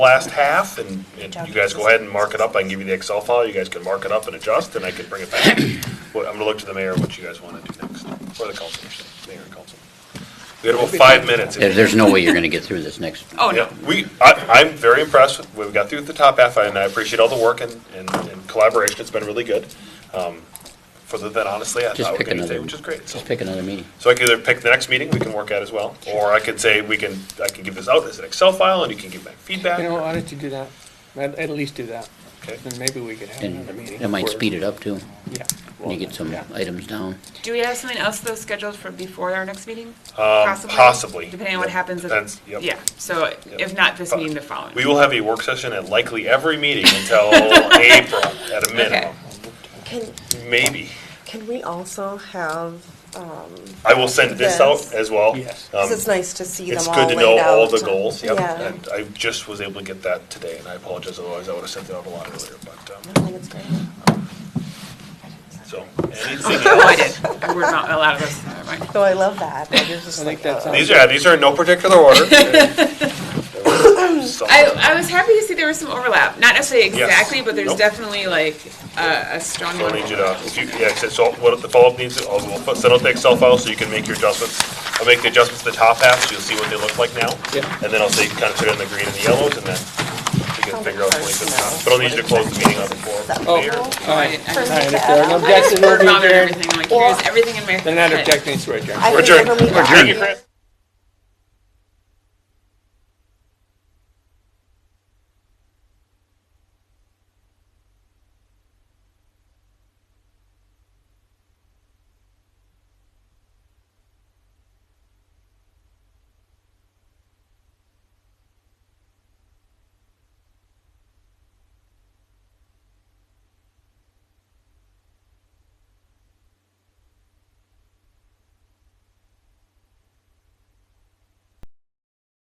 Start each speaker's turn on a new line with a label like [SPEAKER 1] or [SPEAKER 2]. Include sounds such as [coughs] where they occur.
[SPEAKER 1] last half, and and
[SPEAKER 2] Job
[SPEAKER 1] you guys go
[SPEAKER 2] description.
[SPEAKER 1] ahead and mark it up. I can give you the Excel file, you guys can mark it up and adjust, and I can bring it back. [coughs] Well, I'm gonna look to the mayor, what you guys want to do next, or the council, I should say, mayor and council. We had about five minutes.
[SPEAKER 3] There- There's no way you're going to get through this next.
[SPEAKER 2] Oh, no.
[SPEAKER 1] Yeah, we, I, I'm very impressed with, what we got through the top half, and I appreciate all the work and, and and collaboration, it's been really good. Um, Further than honestly, I
[SPEAKER 3] Just
[SPEAKER 1] thought we
[SPEAKER 3] pick
[SPEAKER 1] could
[SPEAKER 3] another-
[SPEAKER 1] say, which is great. so.
[SPEAKER 3] Just pick another meeting.
[SPEAKER 1] So I can either pick the next meeting we can work at as well, or I could say we can, I can give this out as an Excel file and you can give back feedback.
[SPEAKER 4] You know, why don't you do that? At, at least do that,
[SPEAKER 1] Okay.
[SPEAKER 4] then maybe we could have
[SPEAKER 3] And
[SPEAKER 4] another meeting.
[SPEAKER 3] it might
[SPEAKER 4] where-
[SPEAKER 3] speed it up too,
[SPEAKER 4] Yeah.
[SPEAKER 3] when you get some
[SPEAKER 4] Yeah.
[SPEAKER 3] items down.
[SPEAKER 2] Do we have something else though scheduled for before our next meeting?
[SPEAKER 1] Um, possibly.
[SPEAKER 2] Depending on what
[SPEAKER 1] Yep.
[SPEAKER 2] happens. if-
[SPEAKER 1] Depends, yep.
[SPEAKER 2] Yeah, so if not this meeting, the following.
[SPEAKER 1] We will have a work session at likely every meeting
[SPEAKER 2] [laughs]
[SPEAKER 1] until April at a minimum,
[SPEAKER 5] Can,
[SPEAKER 1] maybe.
[SPEAKER 5] can we also have, um,
[SPEAKER 1] I will send this out as well.
[SPEAKER 4] Yes.
[SPEAKER 1] Um,
[SPEAKER 5] 'cause it's nice to see them
[SPEAKER 1] It's
[SPEAKER 5] all
[SPEAKER 1] good to know
[SPEAKER 5] laid
[SPEAKER 1] all the
[SPEAKER 5] out.
[SPEAKER 1] goals, yep.
[SPEAKER 5] Yeah.
[SPEAKER 1] And I just was able to get that today and I apologize, otherwise I would have sent it out a lot earlier, but, um,
[SPEAKER 5] No, that's great.
[SPEAKER 1] so. anything
[SPEAKER 2] [laughs] Oh, I
[SPEAKER 1] else?
[SPEAKER 2] did. We were not allowed this. Never mind.
[SPEAKER 5] No, I love that. That is just
[SPEAKER 4] I think
[SPEAKER 5] like,
[SPEAKER 4] that's-
[SPEAKER 5] uh,
[SPEAKER 1] These are, these are in no particular order.
[SPEAKER 2] [laughs] [laughs] I, I was happy to see there was some overlap, not necessarily
[SPEAKER 1] Yes.
[SPEAKER 2] exactly, but there's
[SPEAKER 1] Nope.
[SPEAKER 2] definitely like a, a strong
[SPEAKER 1] So
[SPEAKER 2] one.
[SPEAKER 1] I need you to, if you, yeah, so- so what the follow-up needs, I'll we'll put- send out the Excel file so you can make your adjustments. I'll make the adjustments to the top half, so you'll see what they look like now.
[SPEAKER 4] Yeah.
[SPEAKER 1] And then I'll say, kind of put in the green and the yellows, and then you can
[SPEAKER 5] Oh,
[SPEAKER 1] figure out
[SPEAKER 5] hard
[SPEAKER 1] what it's
[SPEAKER 5] to
[SPEAKER 1] on.
[SPEAKER 5] know.
[SPEAKER 1] But I'll need you to close the meeting on the floor.
[SPEAKER 4] Oh, all
[SPEAKER 1] Mayor.
[SPEAKER 4] right.
[SPEAKER 2] I- I-
[SPEAKER 4] All right, if there are no objections, we'll
[SPEAKER 2] We're
[SPEAKER 4] be
[SPEAKER 2] bothered
[SPEAKER 4] adjourned.
[SPEAKER 2] everything, like here's everything in my
[SPEAKER 4] They're not
[SPEAKER 2] head.
[SPEAKER 4] objecting, so we're adjourned.
[SPEAKER 5] I
[SPEAKER 1] We're
[SPEAKER 5] can never
[SPEAKER 1] adjourned.
[SPEAKER 5] meet
[SPEAKER 1] Thank you,
[SPEAKER 5] that.
[SPEAKER 1] Chris.